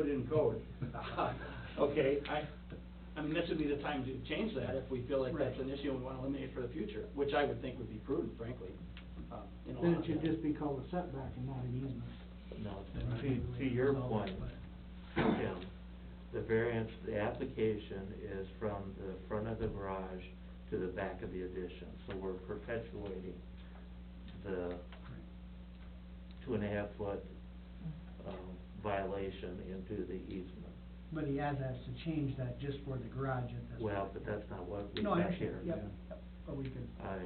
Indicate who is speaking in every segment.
Speaker 1: in code. Okay, I, I mean, this would be the time to change that if we feel like that's
Speaker 2: Right.
Speaker 1: an issue and we want to eliminate for the future, which I would think would be prudent, frankly. um, in a
Speaker 2: Then
Speaker 1: lot
Speaker 2: it
Speaker 1: of
Speaker 2: should
Speaker 1: that.
Speaker 2: just be called a setback and not an easement.
Speaker 3: No, to, to your point, Tim, the variance, the application is from the front of the garage to the back of the addition, so we're perpetuating the two and a half foot, um, violation into the easement.
Speaker 4: But he has asked to change that just for the garage at this point.
Speaker 3: Well, but that's not what we
Speaker 4: No, I
Speaker 3: got
Speaker 4: understand,
Speaker 3: here.
Speaker 4: yep, yep. but we could,
Speaker 3: I,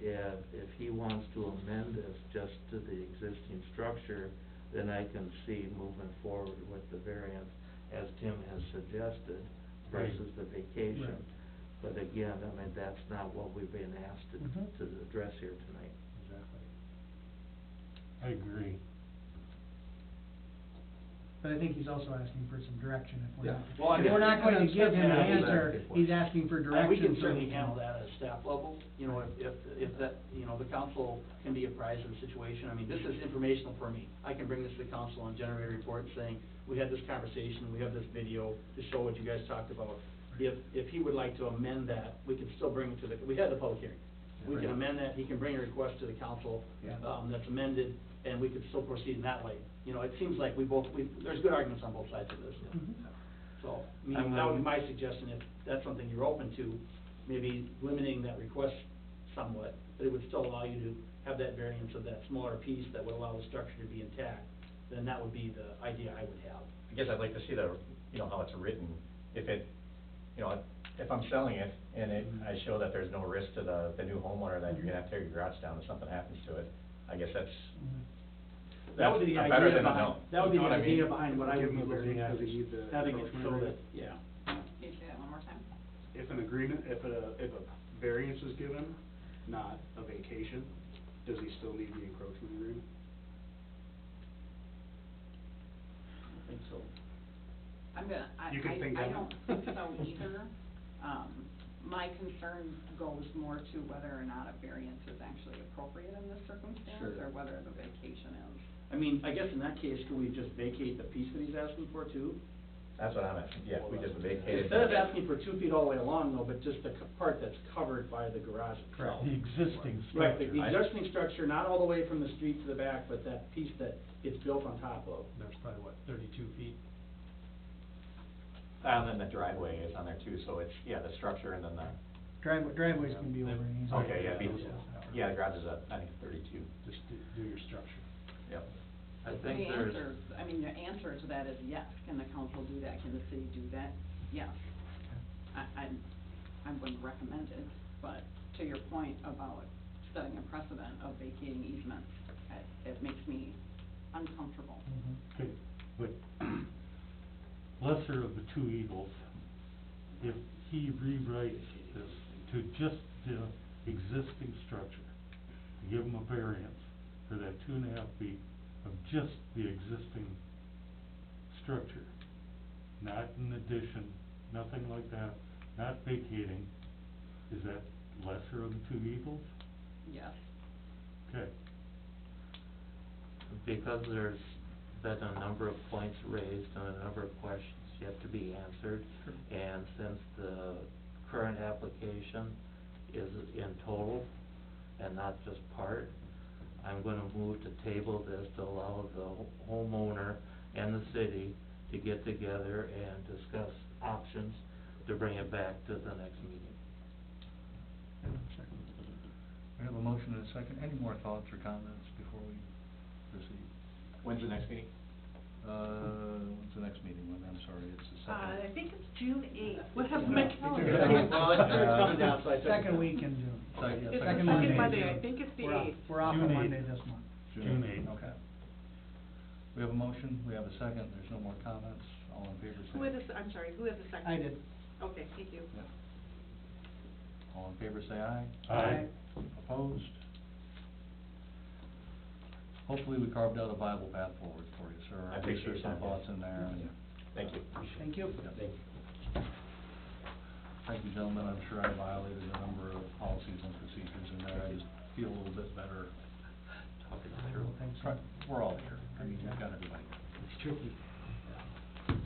Speaker 3: if, if he wants to amend this just to the existing structure, then I can see moving forward with the variance as Tim has suggested versus the vacation.
Speaker 4: Right.
Speaker 3: But again, I mean, that's not what we've been asked
Speaker 4: Mhm.
Speaker 3: to, to address here tonight.
Speaker 5: I agree.
Speaker 4: but I think he's also asking for some direction if we're
Speaker 1: Yeah.
Speaker 4: not.
Speaker 1: Well, I
Speaker 4: If we're
Speaker 1: guess-
Speaker 4: not going to give him an
Speaker 1: Yeah,
Speaker 3: that's
Speaker 4: answer,
Speaker 3: exactly.
Speaker 4: he's asking for
Speaker 1: And
Speaker 4: direction.
Speaker 1: we can
Speaker 4: from-
Speaker 1: certainly handle that at a staff level, you know, if, if, if that, you know, the council can be apprised of the situation. I mean, this is informational for me. I can bring this to the council and generate a report saying, we had this conversation, we have this video to show what you guys talked about. If, if he would like to amend that, we can still bring it to the, we had the public hearing. We can amend that, he can bring a request to the council,
Speaker 4: Yeah.
Speaker 1: um, that's amended, and we could still proceed in that way. You know, it seems like we both, we, there's good arguments on both sides of this.
Speaker 4: Mhm.
Speaker 1: So, I mean, that would be my suggestion, if that's something you're open to, maybe limiting that request somewhat, but it would still allow you to have that variance of that smaller piece that would allow the structure to be intact, then that would be the idea I would have.
Speaker 6: I guess I'd like to see the, you know, how it's written, if it, you know, if I'm selling it and it, I show that there's no risk to the, the new homeowner, that you're gonna have to tear your garage down if something happens to it, I guess that's,
Speaker 1: That would be the
Speaker 6: That's better
Speaker 1: idea
Speaker 6: than a
Speaker 1: behind,
Speaker 6: no.
Speaker 1: that would be the
Speaker 6: You know what I
Speaker 1: idea
Speaker 6: mean?
Speaker 1: behind what I
Speaker 5: Give
Speaker 1: would be
Speaker 5: them a
Speaker 1: looking at,
Speaker 5: variance,
Speaker 1: is
Speaker 5: the
Speaker 1: having it so
Speaker 5: preliminary.
Speaker 1: that, yeah.
Speaker 7: Can you say that one more time?
Speaker 5: If an agreement, if a, if a variance is given, not a vacation, does he still need the encroachment agreement?
Speaker 1: I think so.
Speaker 7: I'm gonna, I,
Speaker 5: You can think
Speaker 7: I, I
Speaker 5: on
Speaker 7: don't
Speaker 5: it.
Speaker 7: think so either. Um, my concern goes more to whether or not a variance is actually appropriate in this circumstance,
Speaker 1: Sure.
Speaker 7: or whether the vacation is.
Speaker 1: I mean, I guess in that case, could we just vacate the piece that he's asking for too?
Speaker 6: that's what I'm asking, yeah, if we just vacated.
Speaker 1: Instead of asking for two feet all the way along though, but just the co- part that's covered by the garage itself.
Speaker 4: Correct. The
Speaker 2: existing
Speaker 1: Right, the the
Speaker 6: I-
Speaker 1: existing structure, not all the way from the street to the back, but that piece that gets built on top of.
Speaker 8: There's probably, what, thirty-two feet?
Speaker 6: And then the driveway is on there too, so it's, yeah, the structure and then the,
Speaker 4: Driveway, driveways can be over an easement.
Speaker 6: okay, yeah, be- yeah, the garage is at, I think, thirty-two,
Speaker 5: Just do, do your structure.
Speaker 6: yep.
Speaker 3: I
Speaker 7: The
Speaker 3: think there's.
Speaker 7: answer, I mean, the answer to that is yes. Can the council do that? Can the city do that? Yes. I, I, I wouldn't recommend it, but to your point about setting a precedent of vacating easements, it, it makes me uncomfortable.
Speaker 4: Mhm.
Speaker 5: Could- But Mm-hmm. lesser of the two evils, if he rewrites this to just the existing structure, give him a variance for that two and a half feet of just the existing structure, not an addition, nothing like that, not vacating, is that lesser of the two evils?
Speaker 7: Yes.
Speaker 5: Okay.
Speaker 3: because there's been a number of points raised and a number of questions yet to be answered, and since the current application is in total and not just part, I'm gonna move to table this to allow the ho- homeowner and the city to get together and discuss options to bring it back to the next meeting.
Speaker 8: We have a motion and a second. Any more thoughts or comments before we proceed?
Speaker 6: When's the next meeting?
Speaker 8: Uh, when's the next meeting? When, I'm sorry, it's
Speaker 9: Uh,
Speaker 8: the second.
Speaker 7: think it's June eighth.
Speaker 9: What happened to my
Speaker 1: Well,
Speaker 4: calendar?
Speaker 9: calendar?
Speaker 1: it's coming down, so I took-
Speaker 4: Second week in June.
Speaker 8: Second-
Speaker 9: It's the
Speaker 8: second
Speaker 9: second
Speaker 4: Monday in
Speaker 9: Monday, I
Speaker 4: June.
Speaker 9: think it's the
Speaker 4: We're off-
Speaker 9: eighth.
Speaker 4: We're off
Speaker 5: June
Speaker 4: on
Speaker 5: eighth.
Speaker 4: Monday this month.
Speaker 5: June eighth.
Speaker 8: Okay. We have a motion, we have a second, there's no more comments, all in favor say.
Speaker 9: Who had the, I'm sorry, who had the second?
Speaker 4: I did.
Speaker 9: Okay, thank you.
Speaker 8: Yeah. All in favor say aye.
Speaker 5: Aye.
Speaker 8: Opposed? Hopefully we carved out a viable path forward for you, sir.
Speaker 5: Uh,
Speaker 6: I appreciate
Speaker 8: There's some
Speaker 6: that, yes.
Speaker 8: thoughts in there and.
Speaker 6: Thank you.
Speaker 4: Thank you.
Speaker 8: Thank you, gentlemen, I'm sure I violated a number of policies and procedures in there, I just feel a little bit better.
Speaker 3: Talking
Speaker 4: I
Speaker 3: through.
Speaker 4: don't think so.
Speaker 8: Try- We're all here, I mean, we've got everybody here.
Speaker 4: It's tricky.